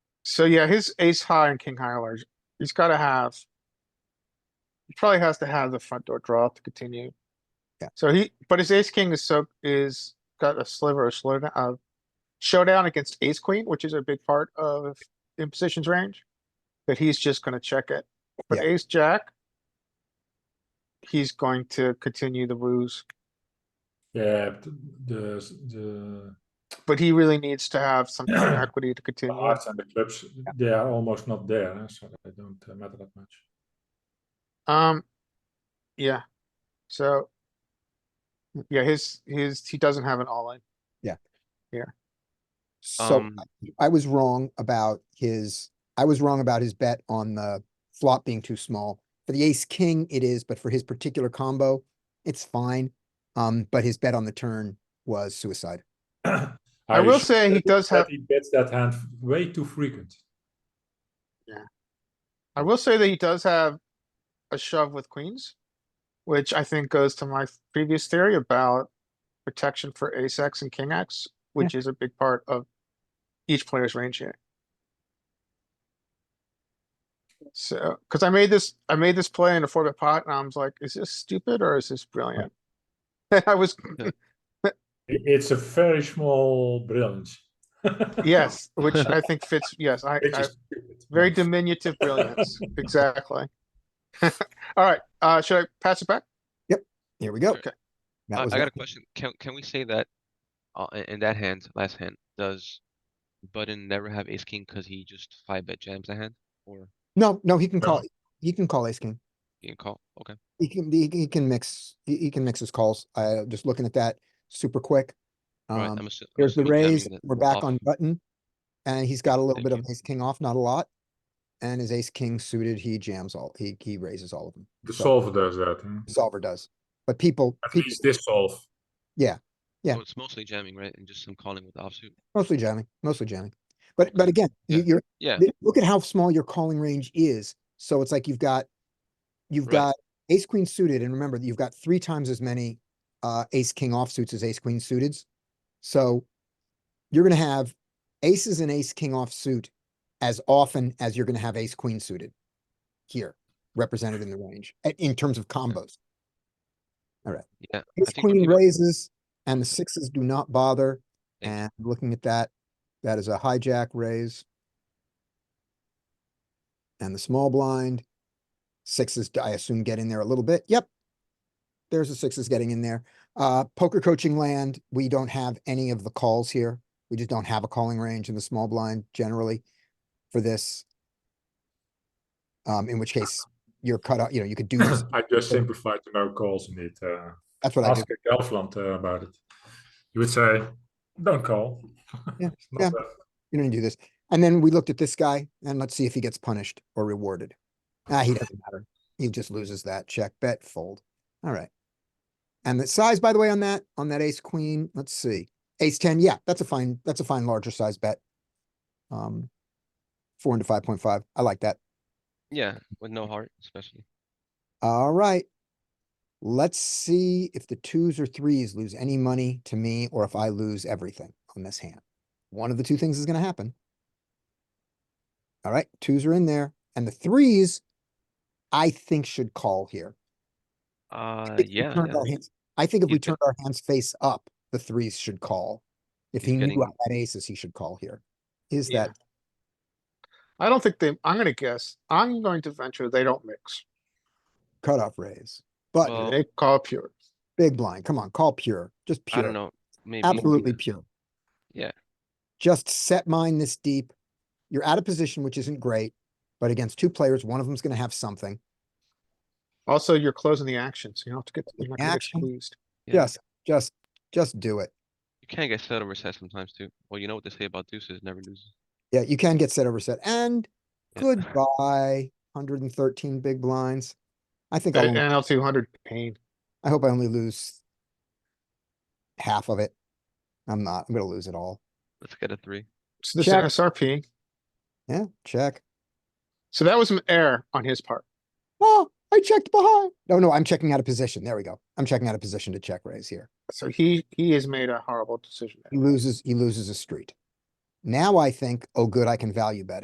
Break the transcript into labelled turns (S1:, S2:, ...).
S1: So yeah, his ace high and king high are large, he's gotta have. He probably has to have the front door draw to continue.
S2: Yeah.
S1: So he, but his ace king is so, is got a sliver of slowdown, uh, showdown against ace queen, which is a big part of imposition's range. That he's just gonna check it, but
S2: Yeah.
S1: ace jack. He's going to continue the ruse,
S3: Yeah, but the the
S1: but he really needs to have some kind of equity to
S3: the
S1: continue.
S3: hearts and the clubs they are almost not there, eh, so they don't uh, matter that much.
S1: Um, yeah, so. Yeah, his, his, he doesn't have an all in.
S2: So
S4: Um,
S2: I- I was wrong about his, I was wrong about his bet on the flop being too small. For the ace king, it is, but for his particular combo, it's fine. Um, but his bet on the turn was suicide.
S1: I
S3: Are you
S1: will
S3: sure
S1: say he
S3: that
S1: does
S3: that
S1: have-
S3: He bets that hand way too frequent.
S1: I will say that he does have a shove with queens. Which I think goes to my previous theory about protection for ace X and king X, which is a big part of each player's range here. So, cuz I made this, I made this play in a four bit pot and I was like, is this stupid or is this brilliant? I was,
S3: I- It's a very small brilliance.
S1: yes, which I think fits, yes, I,
S3: Which
S1: I,
S3: is stupid.
S1: Very diminutive brilliance, exactly. Alright, uh, should I pass it back?
S2: Here we go.
S4: Okay.
S2: That
S4: I, I
S2: was
S4: got a
S2: lucky.
S4: question. Can, can we say that, uh, in- in that hand, last hand, does button never have ace king because he just five bet jams the hand or
S2: No, no, he can
S3: No.
S2: call, he can call ace king.
S4: he can call? Okay.
S2: He can, he he can mix, he he can mix his calls. Uh, just looking at that super quick.
S4: Alright,
S2: Um,
S4: I'm assu- I'm
S2: Here's the
S4: assuming that
S2: raise,
S4: means that
S2: we're back
S4: off.
S2: on button. And he's got a little
S4: Thank
S2: bit of
S4: you.
S2: ace king off, not a lot. And his ace king suited, he jams all, he, he raises all of them.
S3: The
S2: So,
S3: solver does that. hmm?
S2: Solver does, but people,
S3: At
S2: people
S3: least this solve.
S2: yeah.
S4: So It's mostly jamming, right? And just some calling with offsuit.
S2: mostly jamming, mostly jamming. But, but
S4: Okay.
S2: again, you,
S4: Yeah.
S2: you're,
S4: Yeah,
S2: th- look at how small your calling range is. So it's like you've got, you've
S4: Right.
S2: got ace queen suited and remember that you've got three times as many, uh, ace king offsuits as ace queen suiteds. So you're gonna have aces and ace king offsuit as often as you're gonna have ace queen suited here, represented in the range, a- in terms of combos.
S4: yeah. I
S2: Ace
S4: think the
S2: queen
S4: bigger-
S2: raises and the sixes do not bother.
S4: Thank you.
S2: And looking at that, that is a hijack raise. And the small blind, sixes, I assume, get in there a little bit. Yep. There's the sixes getting in there. Uh, poker coaching land, we don't have any of the calls here. We just don't have a calling range in the small blind generally for this. Um, in which case you're cut out, you know, you could do this.
S3: I just simplified to no calls in it. Uh,
S2: That's what I do.
S3: ask Gelfland uh, about it. You would say, don't call.
S2: Yeah,
S3: It's not
S2: yeah.
S3: that-
S2: you don't need to do this. And then we looked at this guy and let's see if he gets punished or rewarded. Ah, he doesn't matter. He just loses that check, bet, fold. All right. And the size, by the way, on that, on that ace queen, let's see. Ace ten, yeah, that's a fine, that's a fine larger size bet. Um, four into five point five. I like that.
S4: Yeah, with no heart especially.
S2: All right. Let's see if the twos or threes lose any money to me or if I lose everything on this hand. One of the two things is going to happen. All right, twos are in there and the threes I think should call here.
S4: Uh,
S2: If we
S4: yeah,
S2: turned
S4: yeah.
S2: our hands- I think if
S4: He's
S2: we
S4: got-
S2: turned our hands face up, the threes should call. If
S4: He's
S2: he knew
S4: getting-
S2: I had aces, he should call here. Is
S1: Yeah.
S2: that
S1: I don't think they, I'm gonna guess, I'm going to venture they don't mix,
S2: cutoff raise? But
S4: Well-
S1: they call pure.
S2: big blind, come on, call pure, just
S4: I
S2: pure.
S4: don't know, maybe.
S2: Absolutely pure.
S4: Yeah.
S2: Just set mine this deep. You're out of position, which isn't great, but against two players, one of them's gonna have something.
S1: Also, you're closing the action, so you don't have to get, you're not gonna get
S2: Action.
S1: squeezed.
S4: Yeah.
S2: Just, just, just do it.
S4: You can get set over set sometimes too. Well, you know what they say about deuces, never loses.
S2: Yeah, you can get set over set and
S4: Yeah.
S2: goodbye, hundred and thirteen big blinds. I think I,
S4: uh,
S2: only-
S1: NL two hundred pain.
S2: I hope I only lose half of it. I'm not, I'm gonna lose it all.
S4: Let's get a three.
S1: So this is
S2: Check.
S1: SRP.
S2: Yeah, check.
S1: So that was an error on his part.
S2: Oh, I checked behind. No, no, I'm checking out of position. There we go. I'm checking out of position to check raise here.
S1: So he, he has made a horrible decision. there.
S2: He loses, he loses a street. Now I think, oh, good, I can value bet